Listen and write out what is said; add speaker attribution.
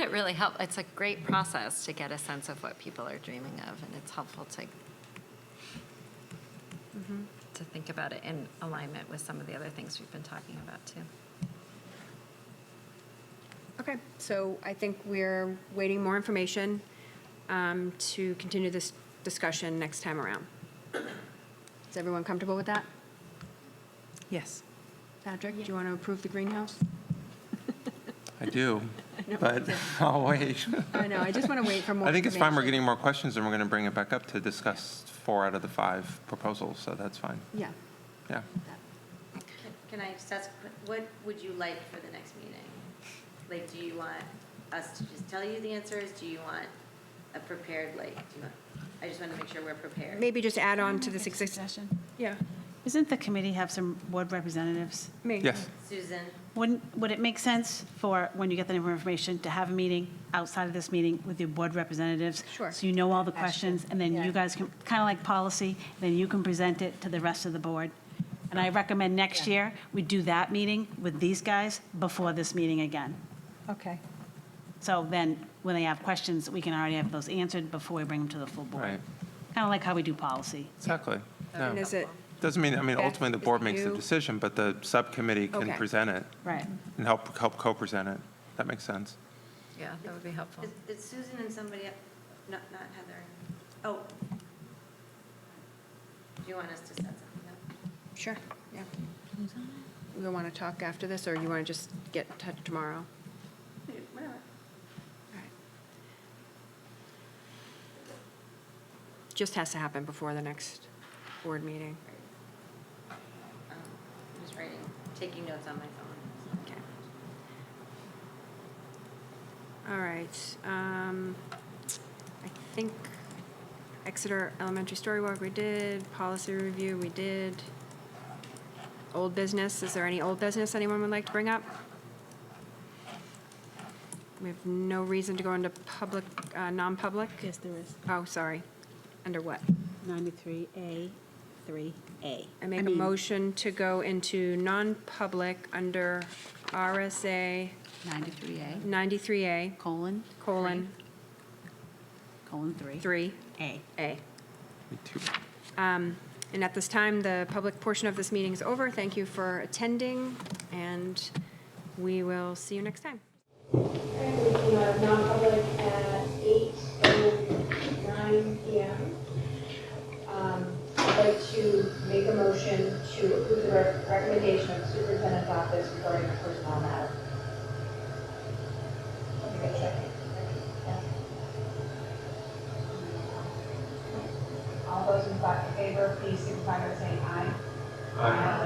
Speaker 1: it really help, it's a great process to get a sense of what people are dreaming of, and it's helpful to to think about it in alignment with some of the other things we've been talking about too.
Speaker 2: Okay, so I think we're waiting more information um, to continue this discussion next time around. Is everyone comfortable with that?
Speaker 3: Yes.
Speaker 2: Patrick, do you want to approve the greenhouse?
Speaker 4: I do, but I'll wait.
Speaker 2: I know, I just want to wait for more.
Speaker 4: I think it's fine, we're
Speaker 2: information.
Speaker 4: getting more questions, and we're going to bring it back up to discuss four out of the five proposals, so that's fine.
Speaker 2: Yeah.
Speaker 4: Yeah.
Speaker 5: Can I just ask, what would you like for the next meeting? Like, do you want us to just tell you the answers? Do you want a prepared, like, do you want, I just want to make sure we're prepared.
Speaker 2: Maybe just add on to this existing. Yeah,
Speaker 3: Isn't the committee have some board representatives?
Speaker 2: me.
Speaker 4: Yes,
Speaker 5: Susan,
Speaker 3: Wouldn't, would it make sense for, when you get that information, to have a meeting outside of this meeting with your board representatives?
Speaker 2: Sure.
Speaker 3: So you know all the questions, and then you guys can, kind of like policy, then you can present it to the rest of the board. And I recommend next year, we do that meeting with these guys before this meeting again.
Speaker 6: Okay.
Speaker 3: So then, when they have questions, we can already have those answered before we bring them to the full board.
Speaker 4: right,
Speaker 3: Kind of like how we do policy.
Speaker 4: exactly.
Speaker 2: And
Speaker 4: No.
Speaker 2: is it,
Speaker 4: Doesn't mean, I mean,
Speaker 2: Beth,
Speaker 4: ultimately, the
Speaker 2: is
Speaker 4: board
Speaker 2: it
Speaker 4: makes the
Speaker 2: you?
Speaker 4: decision, but the subcommittee can
Speaker 2: Okay.
Speaker 4: present it
Speaker 3: Right.
Speaker 4: and help, help co-present it. That makes sense.
Speaker 1: Yeah, that would be helpful.
Speaker 5: is, is Susan and somebody, el- not, not Heather? Oh. Do you want us to set something up?
Speaker 2: sure, yeah. We want to talk after this, or you want to just get in touch tomorrow?
Speaker 5: Whatever.
Speaker 2: Just has to happen before the next board meeting.
Speaker 5: Um, I'm just writing, taking notes on my phone.
Speaker 2: Okay. All right, um, I think Exeter Elementary Story Walk we did, policy review we did. Old business, is there any old business anyone would like to bring up? We have no reason to go into public, uh, non-public?
Speaker 3: Yes, there is.
Speaker 2: Oh, sorry, under what?
Speaker 3: 93A, 3A.
Speaker 2: I make a
Speaker 3: mean,
Speaker 2: motion to go into non-public under RSA
Speaker 3: 93A,
Speaker 2: 93A,
Speaker 3: colon,
Speaker 2: colon,
Speaker 3: colon 3.
Speaker 2: 3A.
Speaker 3: A.
Speaker 4: Me too.
Speaker 2: And at this time, the public portion of this meeting is over. Thank you for attending, and we will see you next time.
Speaker 7: Currently, we have non-public at eight oh nine PM. Um, I'd like to make a motion to approve the rec- recommendation of superintendent's office regarding a personnel matter. Let me get checking. All those in fa- favor, please signify by saying aye. Aye.